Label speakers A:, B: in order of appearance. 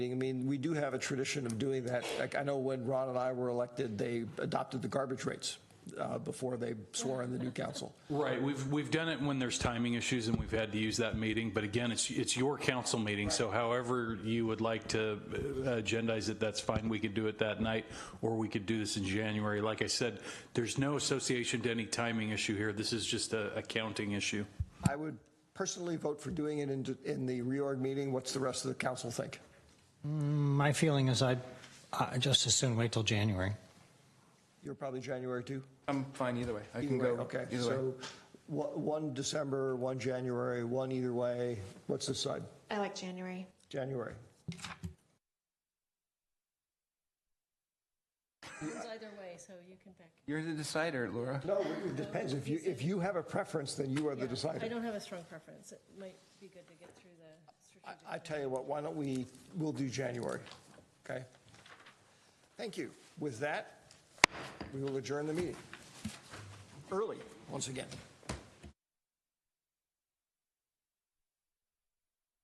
A: I mean, we do have a tradition of doing that. Like, I know when Ron and I were elected, they adopted the garbage rates uh, before they swore in the new council.
B: Right, we've, we've done it when there's timing issues and we've had to use that meeting, but again, it's, it's your council meeting, so however you would like to uh, agendize it, that's fine, we could do it that night, or we could do this in January. Like I said, there's no association to any timing issue here, this is just a accounting issue.
A: I would personally vote for doing it in, in the reorg meeting. What's the rest of the council think?
C: My feeling is I'd uh, just as soon wait till January.
A: You're probably January too?
D: I'm fine either way. I
A: Either
D: can
A: way,
D: go.
A: okay.
D: Either way.
A: So one one December, one January, one either way. What's this side?
E: I like January.
A: January.
F: It's either way, so you can pick.
D: You're the decider, Laura.
A: No, it depends. If you, if you have a preference, then you are the
F: Yeah, I
A: decider.
F: don't have a strong preference. It might be good to get through the
A: I-
F: strategic.
A: I tell you what, why don't we, we'll do January, okay? Thank you. With that, we will adjourn the meeting. Early, once again.